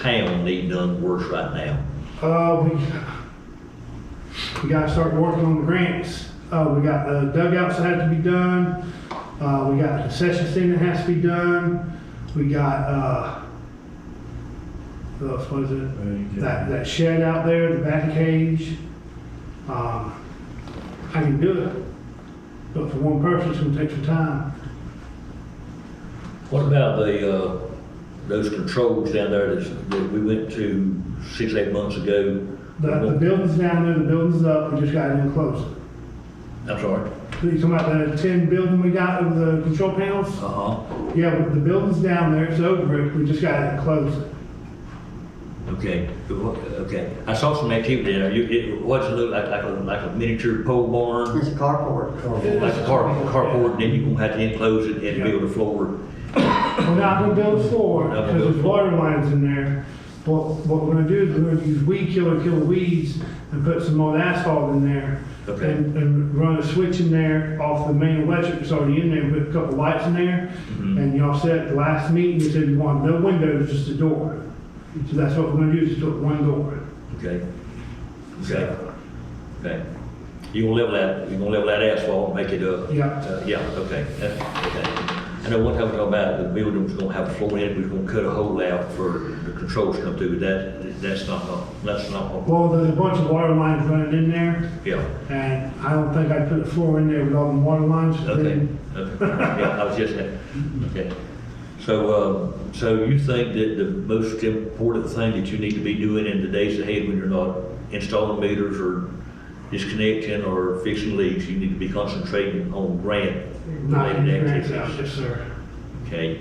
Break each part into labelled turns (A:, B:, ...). A: town need none worse right now?
B: Uh, we, we gotta start working on the grants. Uh, we got the dugouts that have to be done. Uh, we got the concession stand that has to be done. We got, uh, what else was it? That, that shed out there, the bat cage. Um, I can do it, but for one person, it's gonna take some time.
A: What about the, uh, those controls down there that's- that we went to six, eight months ago?
B: The, the building's down there, the building's up, we just gotta enclose it.
A: I'm sorry.
B: You talking about the tin building we got with the control panels?
A: Uh-huh,
B: Yeah, but the building's down there, it's over it, we just gotta close it.
A: okay, okay. I saw some activity there. You, it, what's it look like, like a, like a miniature pole barn?
C: It's a carport.
A: Like a car, carport, and then you're gonna have to enclose it and build a floor.
B: We're not gonna build a floor,
A: Not gonna
B: because
A: build
B: there's water lines in there. What, what we're gonna do is we're gonna use weed killer, kill weeds, and put some more asphalt in there.
A: Okay.
B: And, and run a switch in there off the main electric that's already in there, put a couple lights in there.
A: Mm-hmm.
B: And y'all said at the last meeting, you said you want no windows, just a door. So that's what we're gonna do, is just put one door.
A: Okay? Okay, okay. You gonna level that, you gonna level that asphalt, make it up?
B: Yeah.
A: Uh, Yeah, okay, that- okay. I know one time we talked about the building was gonna have a floor in it, we was gonna cut a hole out for the controls to come through, that, that's not, gonna- that's not, gonna-
B: Well, there's a bunch of water lines running in there.
A: yeah.
B: And I don't think I put a floor in there with all the water lines.
A: Okay, okay, yeah, I was just, okay. So, um, so you think that the most important thing that you need to be doing in the days ahead when you're not installing meters or disconnecting or fixing leaks, you need to be concentrating on grant
B: Not in
A: related
B: the grants out,
A: activities?
B: yes, sir.
A: Okay.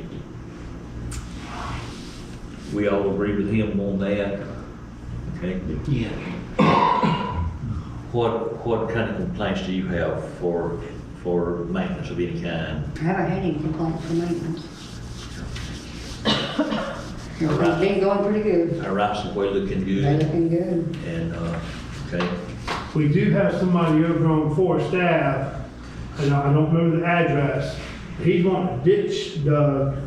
A: We all agree with him on that, okay?
D: Yeah.
A: What, what kind of complaints do you have for, for maintenance of any kind?
C: Haven't had any complaints from maintenance. Everything's been going pretty good.
A: Our rights of way looking
C: They
A: good
C: looking good.
A: and, uh, okay,
B: We do have somebody over on Forest staff, and I I don't remember the address. He's wanting to ditch dug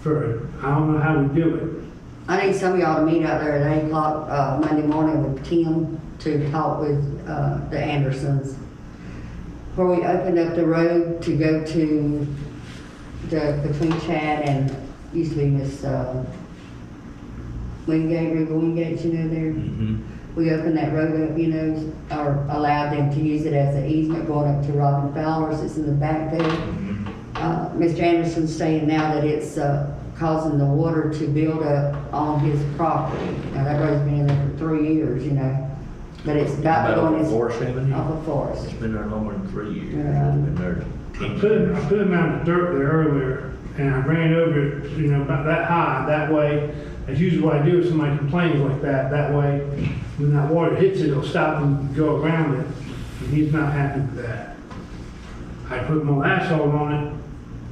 B: for, I don't know how we do it.
C: I need some of y'all to meet out there at eight o'clock, uh, Monday morning with Tim to talk with, uh, the Andersons. Where we opened up the road to go to the, between Chad and used to be Miss, uh, Wingate, River Wingate, you know, there.
A: mhm,
C: We opened that road up, you know, or allowed them to use it as an easement going up to Robin Fowler's, it's in the back there.
A: mhm,
C: Uh, Mr. Anderson's saying now that it's, uh, causing the water to build up on his property. Now, that road's been in there for three years, you know, but it's about to
A: About
C: go
A: off
C: in
A: of
C: his,
A: Forest Avenue?
C: off of Forest.
A: It's been there longer than three years,
C: Uh-huh. Yeah.
A: it's been there ten
B: I put,
A: years.
B: him- I put him out in the dirt there earlier, and I ran over it, you know, about that high, that way. That's usually what I do if somebody complains like that, that way, when that water hits it, it'll stop and go around it. And he's not happy with that. I put more asphalt on it,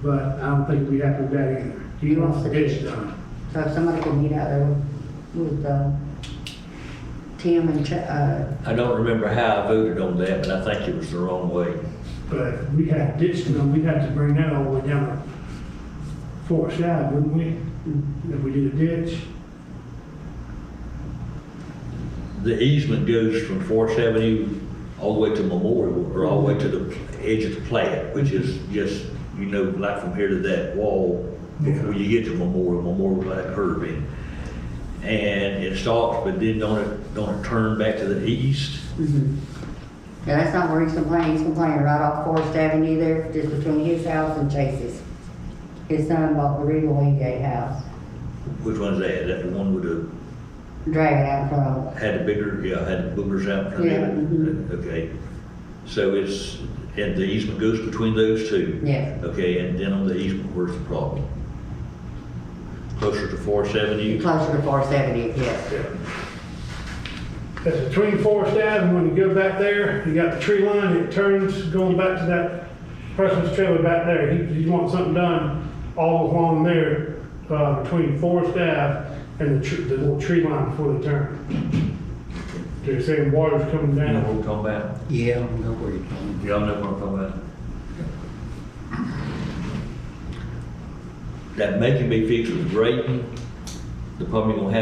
B: but I don't think we have to do that either. He wants to ditch done.
C: So if somebody could meet out there with, uh, Tim and, Ch- uh,
A: I don't remember how I voted on that, but I think it was the wrong way.
B: But if we had ditched them, we'd have to bring that all the way down to Forest Ave, wouldn't we? If we did a ditch,
A: The easement goes from Forest Avenue all the way to Memorial, or all the way to the edge of the plat, which is just, you know, like from here to that wall, before you get to Memorial, Memorial that curve in. And it stops, but then don't it, don't it turn back to the east?
C: Mhm. Yeah, that's not where he's complaining, he's complaining right off Forest Avenue there, just between his house and Chase's. His son bought the Regal Wingate house,
A: Which one's that? Is that the one with the,
C: dragging out in front of
A: had the bigger, yeah, had the boogers out in front
C: Yeah,
A: of it? Okay. So it's, and the easement goes between those two?
C: it. Yes,
A: Okay, and then on the easement, where's the problem? Closer to Forest Avenue?
C: closer to Forest Avenue, yes.
B: that's between Forest Ave, and when you go back there, you got the tree line, it turns going back to that person's trailer back there. He, he wants something done all along there, uh, between Forest Ave and the tr the little tree line before they turn. They're saying water's coming
A: You know what
B: down.
A: I'm talking about?
D: Yeah, I don't know where you're going.
A: Y'all know what I'm talking about? That may can be fixed with grading. The problem you're gonna have